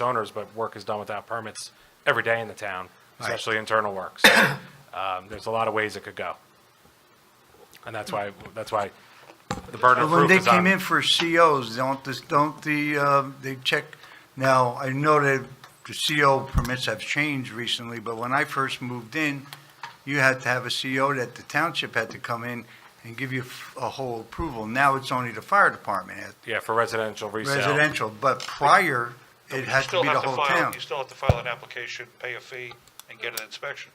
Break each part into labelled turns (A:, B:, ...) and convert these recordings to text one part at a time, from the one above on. A: owners, but work is done without permits every day in the town, especially internal work. So, um, there's a lot of ways it could go. And that's why, that's why the burden
B: But
A: of
B: when
A: proof
B: they
A: is
B: came in
A: on.
B: for COs, don't this, don't the, uh, they check, now, I know that the CO permits have changed recently, but when I first moved in, you had to have a CO that the township had to come in and give you a whole approval. Now it's only the fire department, at
A: Yeah, for residential resale.
B: residential, but prior, it
C: You
B: had to
C: still
B: be the
C: have
B: whole
C: file-
B: town.
C: You still have to file an application, pay a fee, and get an inspection,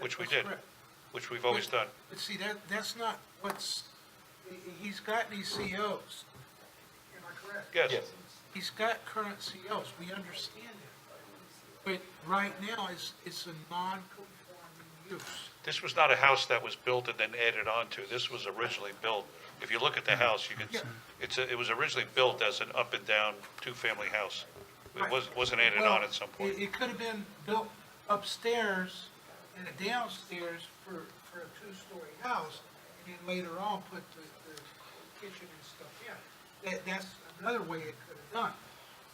C: which we did,
D: Correct.
C: which we've always done.
D: But see, that, that's not what's, he- he's got these COs. Am I correct?
C: Yes,
D: He's got current COs, we understand that. But right now, it's, it's a non-conforming use.
C: this was not a house that was built and then added on to. This was originally built. If you look at
B: Mm-hmm.
C: the house, you can, it's, a- it was originally built as an up and down, two-family house. It was, wasn't added on
D: Well,
C: at some
D: It,
C: point.
D: it could have been built upstairs and downstairs for, for a two-story house, and then later on put the, the kitchen and stuff in. That, that's another way it could have done.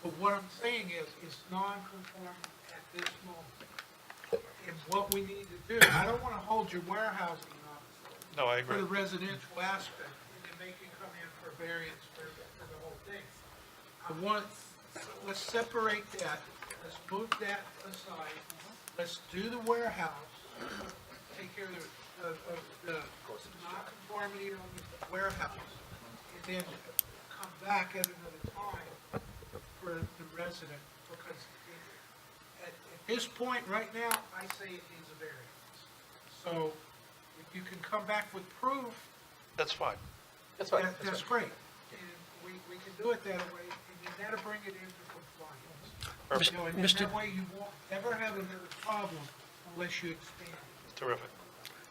D: But what I'm saying is, it's non-conforming at this moment. And what we need to do, I don't want to hold your warehousing up
C: No, I
D: for
C: agree.
D: the residential aspect, and then they can come in for variance for, for the whole thing. I want, let's separate that, let's move that aside, let's do the warehouse, take care of the, of, of the non-conformity on the warehouse, and then come back at another time for the resident, because at, at this point, right now, I say it needs a variance. So, if you can come back with proof,
C: That's fine.
E: That's fine.
D: that, that's great. And we, we can do it that way, and then that'll bring it into compliance. You know, And
E: Mr.
D: that way you won't ever have another problem unless you expand.
C: Terrific.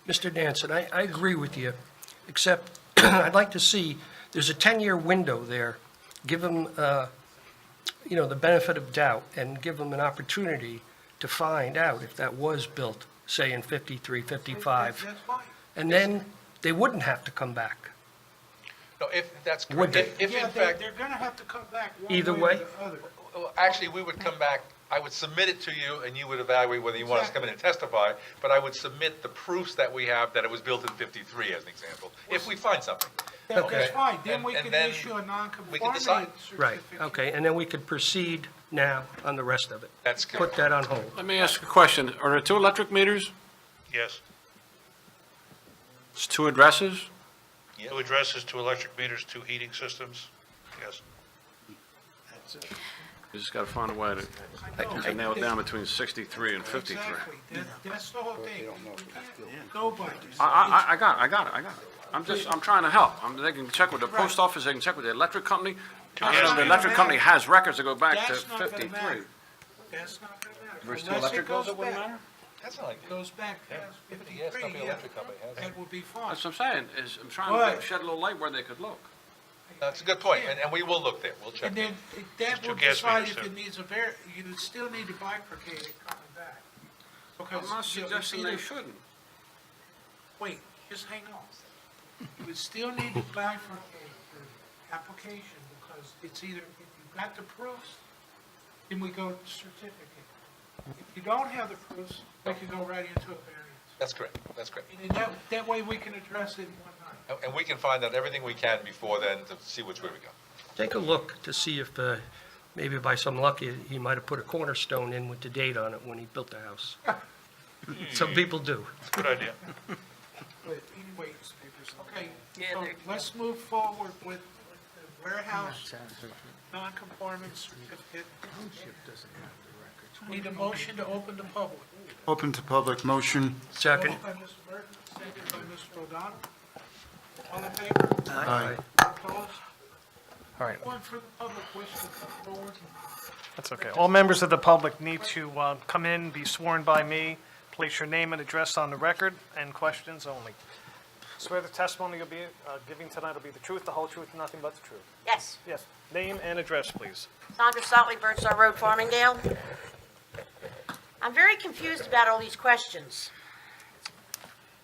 E: Mr. Danson, I, I agree with you, except I'd like to see, there's a 10-year window there. Give them, uh, you know, the benefit of doubt and give them an opportunity to find out if that was built, say, in 53,
D: That-
E: 55.
D: That's fine.
E: And then they wouldn't have to come back.
F: No, if, that's
E: Would
F: correct.
E: they?
F: If if
D: Yeah,
F: in
D: they're,
F: fact,
D: they're gonna have to come back one way
E: Either
D: or
E: way.
D: the other.
F: well, actually, we would come back, I would submit it to you, and you would evaluate whether you want us to come in and testify, but I would submit the proofs that we have that it was built in 53, as an example, if we find something.
D: That-
F: Okay.
D: That's fine, then
F: And-
D: we
F: and
D: can
F: then
D: issue a
F: we can
D: non-conformity
F: decide.
D: certificate.
E: Right, okay, and then we could proceed now on the rest of it.
F: That's
E: Put
F: correct.
E: that on hold.
G: Let me ask a question. Are there two electric meters?
C: Yes.
G: It's two addresses?
C: Two addresses, two electric meters, two heating systems. Yes.
G: You just got to find a way to- to nail it down between 63 and 53.
D: Exactly, that, that's the whole thing. We can't go by this.
G: I, I, I got it, I got it, I got it. I'm just, I'm trying to help. I'm- They can check with the post office, they can check with the electric company. I don't know if the electric company has records that go back to
D: That's not gonna
G: 53.
D: matter. That's not gonna matter.
F: Versus
D: Unless
F: electric
D: it
F: goes,
D: goes
F: it wouldn't
D: back-
F: matter? That's not like,
D: Goes back past
F: Fifty, yes,
D: fifty-three,
F: not the
D: yeah,
F: electric company has it.
D: uh, that will be fine.
G: That's what I'm saying, is I'm trying to
D: Right.
G: shed a little light where they could look.
F: that's a good point, and, and we will look there, we'll check.
D: And then it- that
C: Two
D: will
C: gas
D: decide
C: meters,
D: if it
C: yeah.
D: needs a var, you still need to bifurcate it coming back.
G: I'm not suggesting they shouldn't.
D: Wait, just hang on. You would still need to bifurcate the application because it's either, if you've got the proofs, then we go to certificate. If you don't have the proofs, we can go right into a variance.
F: That's correct, that's correct.
D: And then that, that way we can address it in one night.
F: And- And we can find out everything we can before then to see which way we go.
E: Take a look to see if, uh, maybe by some luck, he- he might have put a cornerstone in with the date on it when he built the house. Some people do.
C: Good idea.
D: But anyway, okay, so let's move forward with the warehouse non-conformance certificate. Need a motion to open the public.
H: Open to public motion.
E: Second.
D: Moved by Mr. Burton, seconded by Mr. O'Donnell. All in favor?
H: Aye.
D: Opposed?
I: All right.
D: One from the public wish to come forward.
I: That's okay. All members of the public need to uh, come in, be sworn by me, place your name and address on the record, and questions only. Swear the testimony you'll be uh, giving tonight will be the truth, the whole truth, and nothing but the truth.
J: Yes,
I: Yes, name and address, please.
J: Sandra Sotley, Birdstar Road, Farmingdale. I'm very confused about all these questions.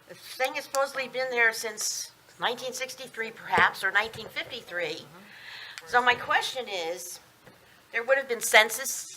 J: The thing has supposedly been there since 1963 perhaps, or 1953. So my question is, there would have been census